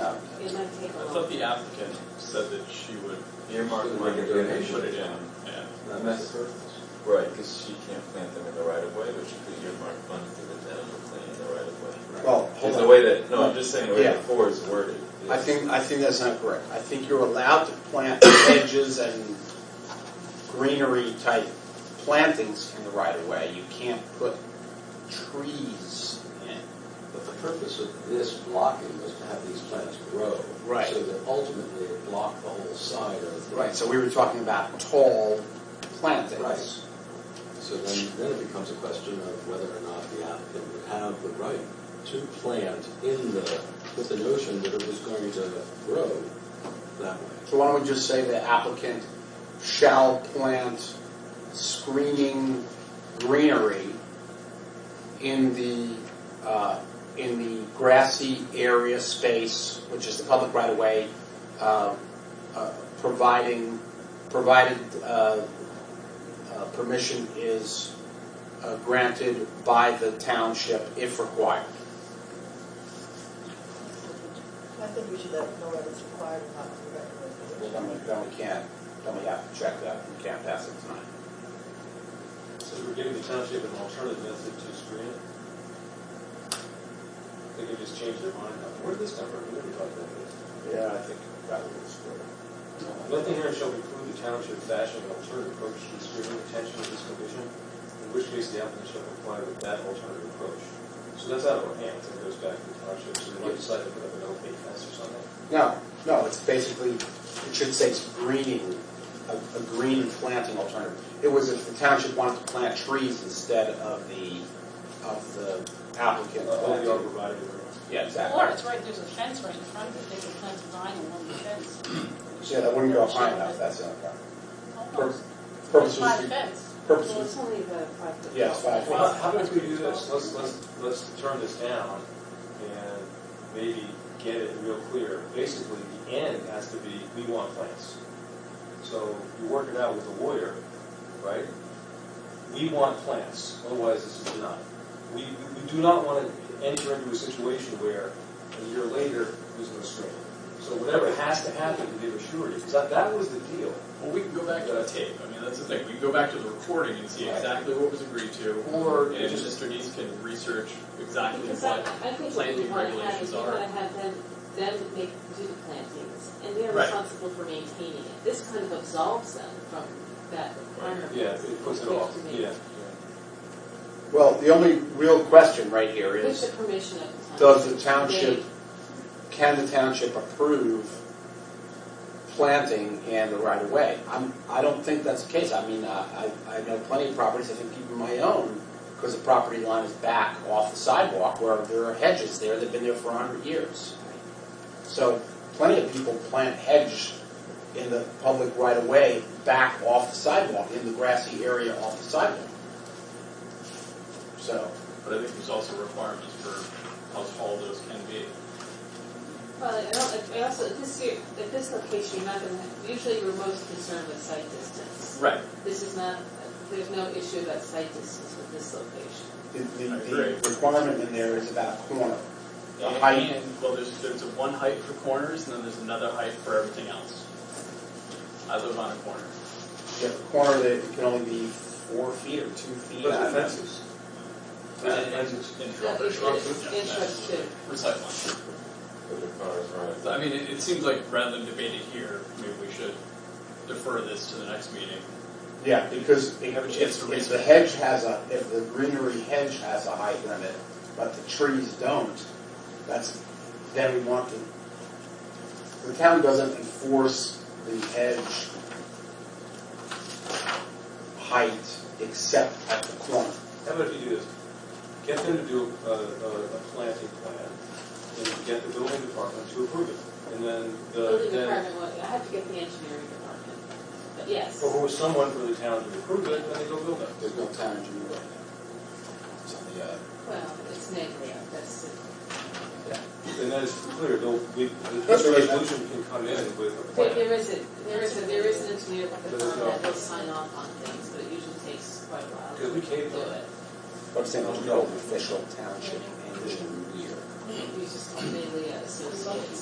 It might take a I long thought time. the applicant said that she would earmark She would money make a and donation. put it in, and Not necessary. Right, because she can't plant them in the right of way, but she could earmark funds to the town to plant in the right of way. Well, Because hold the on. way that, no, I'm just saying the way Yeah. that four is worded. is- I think, I think that's not correct. I think you're allowed to plant hedges and greenery type plantings in the right of way. You can't put trees in. But the purpose of this blocking was to have these plants grow. Right. So that ultimately it blocked the whole side of the. Right, so we were talking about tall Right. plantings. So then, then it becomes a question of whether or not the applicant would have the right to plant in the, with the notion that it was going to grow that way. So why don't we just say the applicant shall plant screening greenery in the, uh, in the grassy area space, which is the public right of way, uh, uh, providing, provided, uh, uh, permission is uh, granted by the township if required. I think we should let know whether it's required or not in the recommendation. Well, then we, then we can't, then we have to check that, we can't pass it tonight. So we're giving the township an alternative method to screen it? They could just change their mind. now. Where did this come from? We never talked about this. Yeah, I think that was good. Nothing here shall preclude the township fashioning an alternative approach to the screening intention of this condition, in which case the applicant shall comply with that alternative approach. So that's out of our hands, it goes back to the township, so they might decide to put up an opaque fence or something. No, no, it's basically, it should say it's greening, a, a green planting alternative. It was if the township wanted to plant trees instead of the, of the applicant. Uh, All the planting. arborvitae or- Yeah, Or exactly. it's right, there's a fence right in front of it, they could plant a vine along the fence. Yeah, that wouldn't go high enough, that's the only problem. Almost, Purpose by the was, fence. purpose Well, was, it's only about five foot. Yeah, it's five Well, how about if we do this, let's, let's, let's turn this down and maybe get it real clear. Basically, the end has to be, we want plants. So you work it out with the lawyer, right? We want plants, otherwise this is denied. We, we we do not want to enter into a situation where a year later, there's no screening. So whatever has to happen to give a surety, 'cause that, that was the deal. Well, we can go back to the tape. I mean, that's the thing. We can go back to the recording and see Right. exactly what was agreed to. Or, And Mr. Neese can research exactly Because I, what. I think what we planting want to have regulations is we are. want to have them, them make, do the plantings, and they're Right. responsible for maintaining it. This kind of absolves them from that requirement. yeah, it puts it off, yeah. well, the only real question right here With is, the permission of the town. does the township, can the township approve planting in the right of way? I'm, I don't think that's the case. I mean, I, I I know plenty of properties, I think even my own, because the property line is back off the sidewalk where there are hedges there that have been there for a hundred years. So plenty of people plant hedge in the public right of way back off the sidewalk, in the grassy area off the sidewalk. So, But I think there's also requirements for how tall those can be. Well, I don't, I also, at this, year- at this location, you're not going to, usually you're most concerned with site distance. Right. This is not, there's no issue about site distance with this location. the, the, I the agree. requirement in there is about a corner. The And- height. and- Well, there's, there's a one height for corners, and then there's another height for everything else. I live on a corner. You have a corner that can only be four feet or two feet. But the I don't know. fences. And, and, Fences. and Yeah, shrub- it's- shrubs, it's- yeah, it's that's- shrubs too. For sightline. Put the cars right. So, I mean, it, it seems like rather than debate it here, maybe we should defer this to the next meeting. Yeah, because Have a if, chance to if- read if the it. hedge has a, if the greenery hedge has a height limit, but the trees don't, that's, then we want to, the town doesn't enforce the hedge height except at the corner. How about if you do this? Get them to do a, a, a planting plan, and get the building department to approve it. And then the, Building then, department, well, I have to get the engineering department, but yes. or who is someone from the town to approve it, then they go build it. There's no town engineer right now. It's on the, uh, Well, it's negative, that's it. And that is clear, they'll, we, the resolution can come in with a There, plan. there is a, there is a, there is an engineer at the There's firm no- that will sign off on things, but it usually takes quite a while Because we to can't, do it. but I'm saying there's no official township engineer. We just, mainly associates.